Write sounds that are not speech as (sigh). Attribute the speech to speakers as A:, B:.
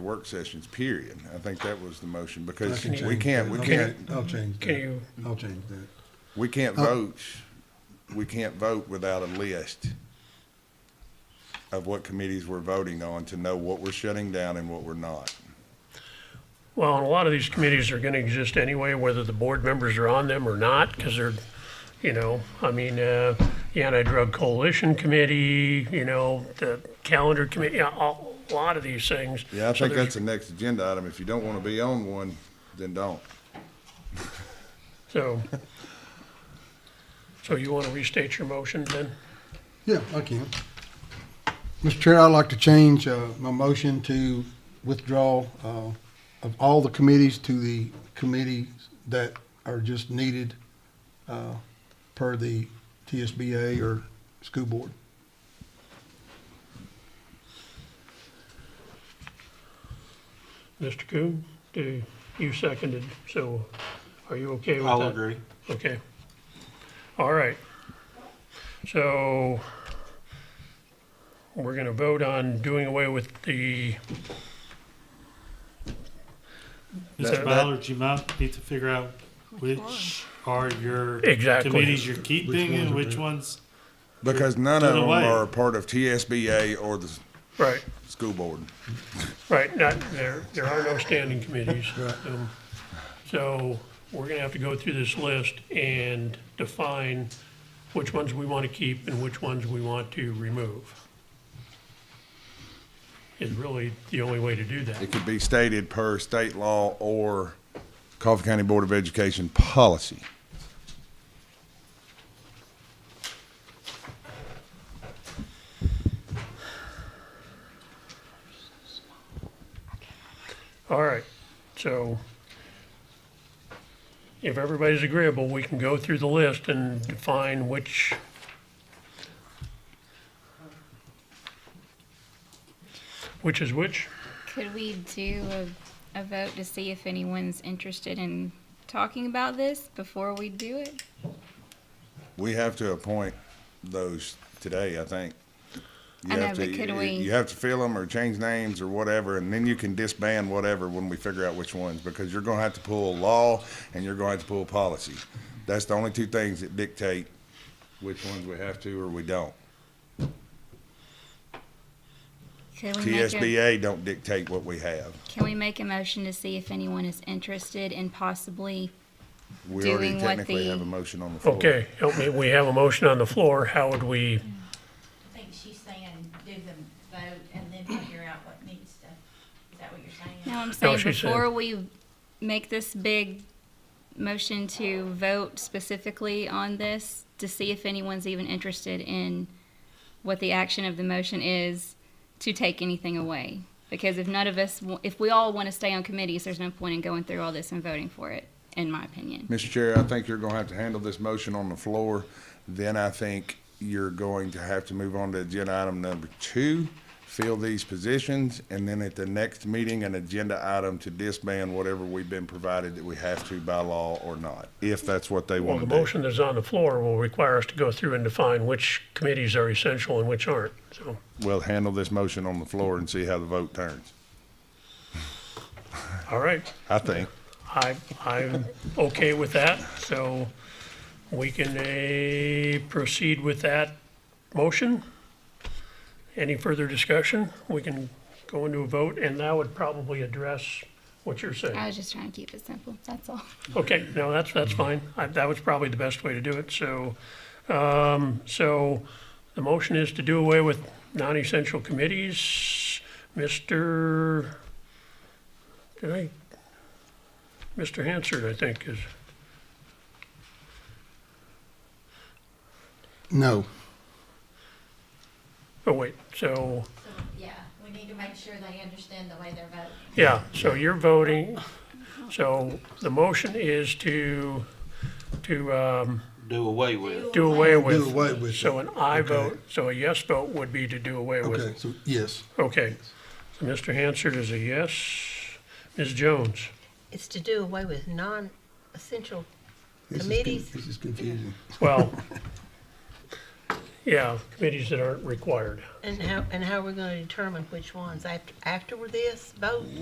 A: work sessions, period. I think that was the motion, because
B: I can
A: we
B: change
A: can't, we
B: that.
A: can't,
B: I'll change
C: Can
B: that.
C: you-
B: I'll change that.
A: we can't
B: Oh.
A: vote, we can't vote without a list of what committees we're voting on to know what we're shutting down and what we're not.
C: Well, and a lot of these committees are going to exist anyway, whether the board members are on them or not, because they're, you know, I mean, uh, the Anti-Drug Coalition Committee, you know, the Calendar Committee, yeah, a, a lot of these things.
A: Yeah, I
C: So
A: think
C: there's-
A: that's the next agenda item. If you don't want to be on one, then don't.
C: So, so you want to restate your motion then?
B: Yeah, I can. Mr. Chair, I'd like to change, uh, my motion to withdraw, uh, of all the committees to the committees that are just needed, uh, per the TSBA or school board.
C: Mr. Coon, do, you seconded, so are you okay with that?
D: I'll agree.
C: Okay. All right. So we're gonna vote on doing away with the, That-
D: Mr.
C: that-
D: Ballard, you might need to figure out which are your
C: Exactly.
D: committees you're keeping and which ones.
A: Because none of
D: Either
A: them
D: way.
A: are a part of TSBA or the s-
C: right,
A: school board.
C: right, not, there, there are no standing committees. Um, So we're gonna have to go through this list and define which ones we wanna keep and which ones we want to remove. Is really the only way to do that.
A: It could be stated per state law or Coffee County Board of Education policy.
C: All right, so if everybody's agreeable, we can go through the list and define which. Which is which?
E: Could we do a, a vote to see if anyone's interested in talking about this before we do it?
A: We have to appoint those today, I think. You
E: I know,
A: have to-
E: but could
A: you-
E: we-
A: You have to fill them or change names or whatever, and then you can disband whatever when we figure out which ones, because you're gonna have to pull law and you're gonna have to pull policy. That's the only two things that dictate which ones we have to or we don't.
E: Could we make a,
A: TSBA don't dictate what we have.
E: can we make a motion to see if anyone is interested in possibly,
A: We already
E: Doing what
A: technically
E: the-
A: have a motion on the floor.
C: Okay, help me, we have a motion on the floor, how would we,
F: I think she's saying do the vote and then figure out what needs to, is that what you're saying?
E: no, I'm saying
C: she said-
E: before we make this big motion to vote specifically on this, to see if anyone's even interested in what the action of the motion is to take anything away. Because if none of us, wa- if we all want to stay on committees, there's no point in going through all this and voting for it, in my opinion.
A: Mr. Chair, I think you're gonna have to handle this motion on the floor. Then I think you're going to have to move on to agenda item number two, fill these positions, and then at the next meeting, an agenda item to disband whatever we've been provided that we have to by law or not, if that's what they
C: well, the
A: want to do.
C: motion that's on the floor will require us to go through and define which committees are essential and which aren't, so.
A: We'll handle this motion on the floor and see how the vote turns,
C: All right,
A: I think.
C: I, I'm okay with that, so we can, eh, proceed with that motion. Any further discussion? We can go into a vote, and that would probably address what you're saying.
E: I was just trying to keep it simple, that's all.
C: Okay, no, that's, that's fine. I- That was probably the best way to do it, so, um, so the motion is to do away with non-essential committees. Mr., did I, Mr. Hansard, I think, is,
B: No.
C: oh, wait, so,
F: So, yeah, we need to make sure they understand the way they're voting.
C: yeah, so you're voting. So the motion is to, to, um,
G: do away with.
C: do away with.
B: Do away with it.
C: So an I
B: Okay.
C: vote, so a yes vote would be to do away with.
B: Okay, so, yes.
C: Okay, so Mr. Hansard is a yes. Ms. Jones?
H: It's to do away with non-essential
B: This is con-
H: Committees.
B: This is confusing. (laughs)
C: Well, yeah, committees that aren't required.
H: and how, and how are we gonna determine which ones after, after this vote?